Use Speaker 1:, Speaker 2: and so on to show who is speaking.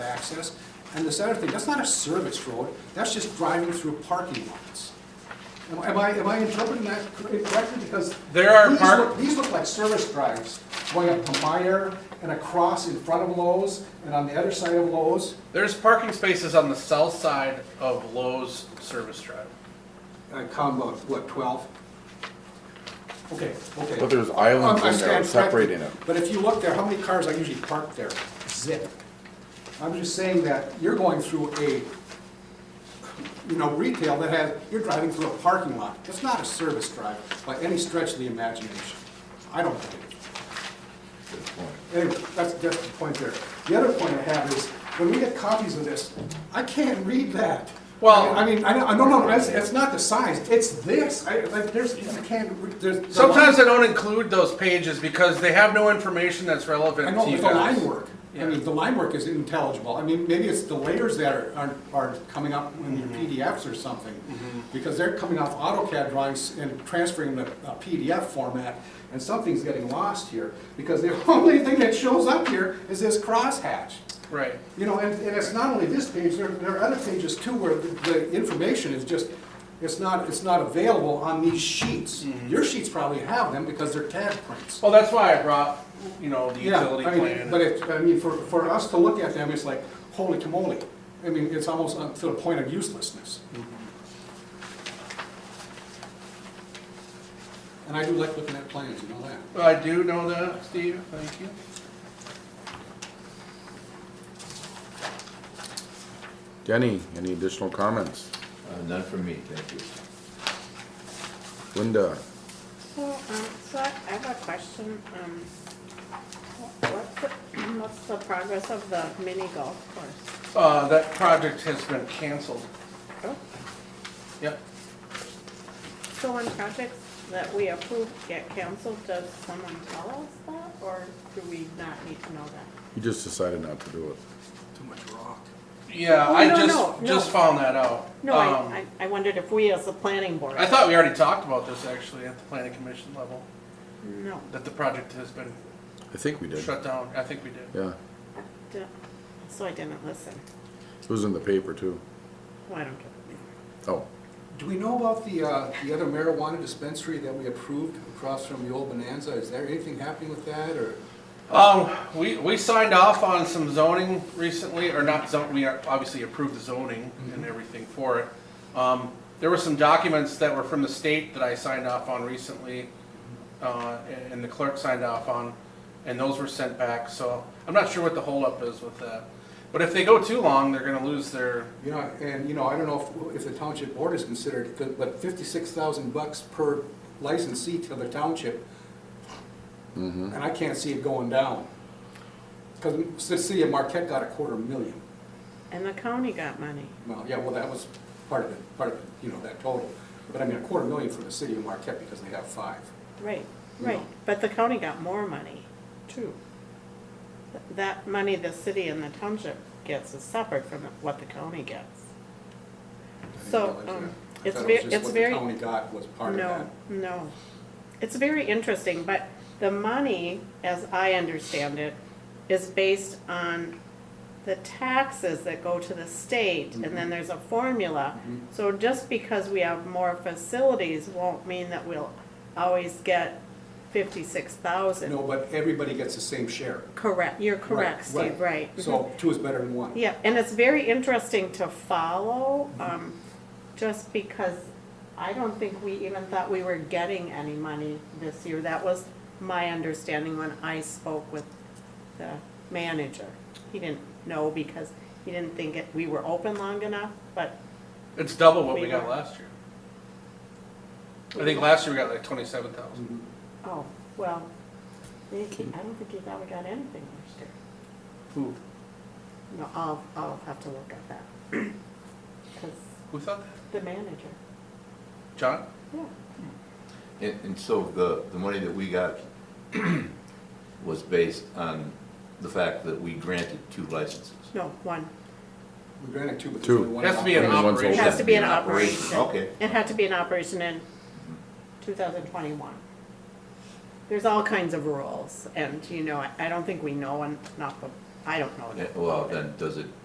Speaker 1: access. And this other thing, that's not a service road, that's just driving through parking lots. Am am I, am I interpreting that correct- correctly? Because
Speaker 2: There are
Speaker 1: these
Speaker 2: park-
Speaker 1: look- These look like service drives going up to Meyer and across in front of Lowe's and on the other side of Lowe's.
Speaker 2: There's parking spaces on the south side of Lowe's Service Drive.
Speaker 3: Uh, combo, what, 12?
Speaker 1: Okay, okay.
Speaker 4: But there's
Speaker 1: Um, I
Speaker 4: islands in there
Speaker 1: stand
Speaker 4: separating it.
Speaker 1: corrected, But if you look there, how many cars are usually parked there? Zip. I'm just saying that you're going through a, you know, retail that has, you're driving through a parking lot. It's not a service drive by any stretch of the imagination. I don't think it is. Anyway, that's, that's the point there. The other point I have is, when we get copies of this, I can't read that.
Speaker 2: Well-
Speaker 1: I mean, I don't, I don't know, it's, it's not the size, it's this, I, like, there's, I can't, re- there's.
Speaker 2: Sometimes I don't include those pages because they have no information that's
Speaker 1: I
Speaker 2: relevant
Speaker 1: know,
Speaker 2: to you
Speaker 1: but the line
Speaker 2: guys.
Speaker 1: work, I mean, the line work is intelligible, I mean, maybe it's the layers that are, are, are coming up in your
Speaker 2: Mm-hmm.
Speaker 1: PDFs or something. Because they're coming off AutoCAD drawings and transferring them to a PDF format, and something's getting lost here. Because the only thing that shows up here is this crosshatch.
Speaker 2: Right.
Speaker 1: You know, and, and it's not only this page, there, there are other pages too where the, the information is just, it's not, it's not available on these sheets.
Speaker 2: Mm-hmm.
Speaker 1: Your sheets probably have them because they're tag prints.
Speaker 2: Well, that's why I brought, you know, the
Speaker 1: Yeah,
Speaker 2: utility
Speaker 1: I mean, But
Speaker 2: plan.
Speaker 1: it, I mean, for, for us to look at them, it's like, holy camoly. I mean, it's almost on- to the point of uselessness. And I do like looking at plans, you know that.
Speaker 2: I do know that, Steve, thank you.
Speaker 4: Denny, any additional comments?
Speaker 5: Uh, None from me, thank you.
Speaker 4: Linda?
Speaker 6: So, um, so I I have a question, um, what's the, what's the progress of the mini golf course?
Speaker 2: Uh, that project has been canceled.
Speaker 6: Oh,
Speaker 2: Yep.
Speaker 6: So when projects that we approve get canceled, does someone tell us that, or do we not need to know that?
Speaker 4: You just decided not to do it.
Speaker 3: Too much rock.
Speaker 2: Yeah,
Speaker 6: Oh,
Speaker 2: I
Speaker 6: no,
Speaker 2: just,
Speaker 6: no, no.
Speaker 2: just found that out.
Speaker 6: No,
Speaker 2: Um,
Speaker 6: I, I I wondered if we as the planning board.
Speaker 2: I thought we already talked about this actually at the planning commission level,
Speaker 6: No.
Speaker 2: that the project has been
Speaker 4: I think we did.
Speaker 2: shut down. I think we did.
Speaker 4: Yeah,
Speaker 6: I di- So I didn't listen,
Speaker 4: it was in the paper too.
Speaker 6: well, I don't care.
Speaker 4: Oh,
Speaker 3: Do we know about the, uh, the other marijuana dispensary that we approved across from the old Bonanza? Is there anything happening with that, or?
Speaker 2: Um, we, we signed off on some zoning recently, or not zon, we obviously approved the zoning and everything for it. Um, there were some documents that were from the state that I signed off on recently, uh, and- and the clerk signed off on, and those were sent back, so I'm not sure what the holdup is with that. But if they go too long, they're gonna lose their,
Speaker 3: You know, and, you know, I don't know if, if the township board is considered, but fifty-six thousand bucks per licensee to the township. And I can't see it going down. Because the city of Marquette got a quarter million.
Speaker 6: And the county got money,
Speaker 3: Well, yeah, well, that was part of it, part of, it, you know, that total. But I mean, a quarter million for the city of Marquette because they have five.
Speaker 6: right, right, but the county got more money, too. Th- That money the city and the township gets is separate from what the county gets.
Speaker 3: I didn't
Speaker 6: So,
Speaker 3: realize
Speaker 6: um,
Speaker 3: that. I
Speaker 6: it's
Speaker 3: thought
Speaker 6: ve-
Speaker 3: it was just
Speaker 6: it's
Speaker 3: what
Speaker 6: very,
Speaker 3: the county got was part of
Speaker 6: no,
Speaker 3: that.
Speaker 6: no. It's very interesting, but the money, as I understand it, is based on the taxes that go to the state, and
Speaker 3: Mm-hmm.
Speaker 6: then there's a formula. So just because we have more facilities won't mean that we'll always get fifty-six thousand.
Speaker 3: No, but everybody gets the same share.
Speaker 6: Correct, you're correct,
Speaker 3: Right,
Speaker 6: Steve, right. Mhm.
Speaker 3: So two is better than one.
Speaker 6: Yeah, and it's very interesting to follow, um, just because I don't think we even thought we were getting any money this year. That was my understanding when I spoke with the manager. He didn't know because he didn't think it, we were open long enough, but
Speaker 2: it's double what we
Speaker 6: We
Speaker 2: got
Speaker 6: were.
Speaker 2: last year. I think last year we got like twenty-seven thousand.
Speaker 6: Oh, well, they- I don't think you thought we got anything last year.
Speaker 2: Who,
Speaker 6: No, I'll, I'll have to look at that. Because
Speaker 2: who thought that?
Speaker 6: the manager,
Speaker 2: John?
Speaker 6: yeah.
Speaker 5: And, and so the, the money that we got was based on the fact that we granted two licenses.
Speaker 6: No, one.
Speaker 3: We granted two, but there's
Speaker 4: Two.
Speaker 3: only one.
Speaker 2: Has to be
Speaker 3: operator.
Speaker 2: an
Speaker 4: Everyone's
Speaker 6: It
Speaker 2: operation.
Speaker 6: has to be an operation.
Speaker 5: Okay.
Speaker 6: It had to be an operation in 2021. There's all kinds of rules, and, you know, I I don't think we know enough, of- I don't know enough.
Speaker 5: Eh, Well,
Speaker 6: about it.
Speaker 5: then, does it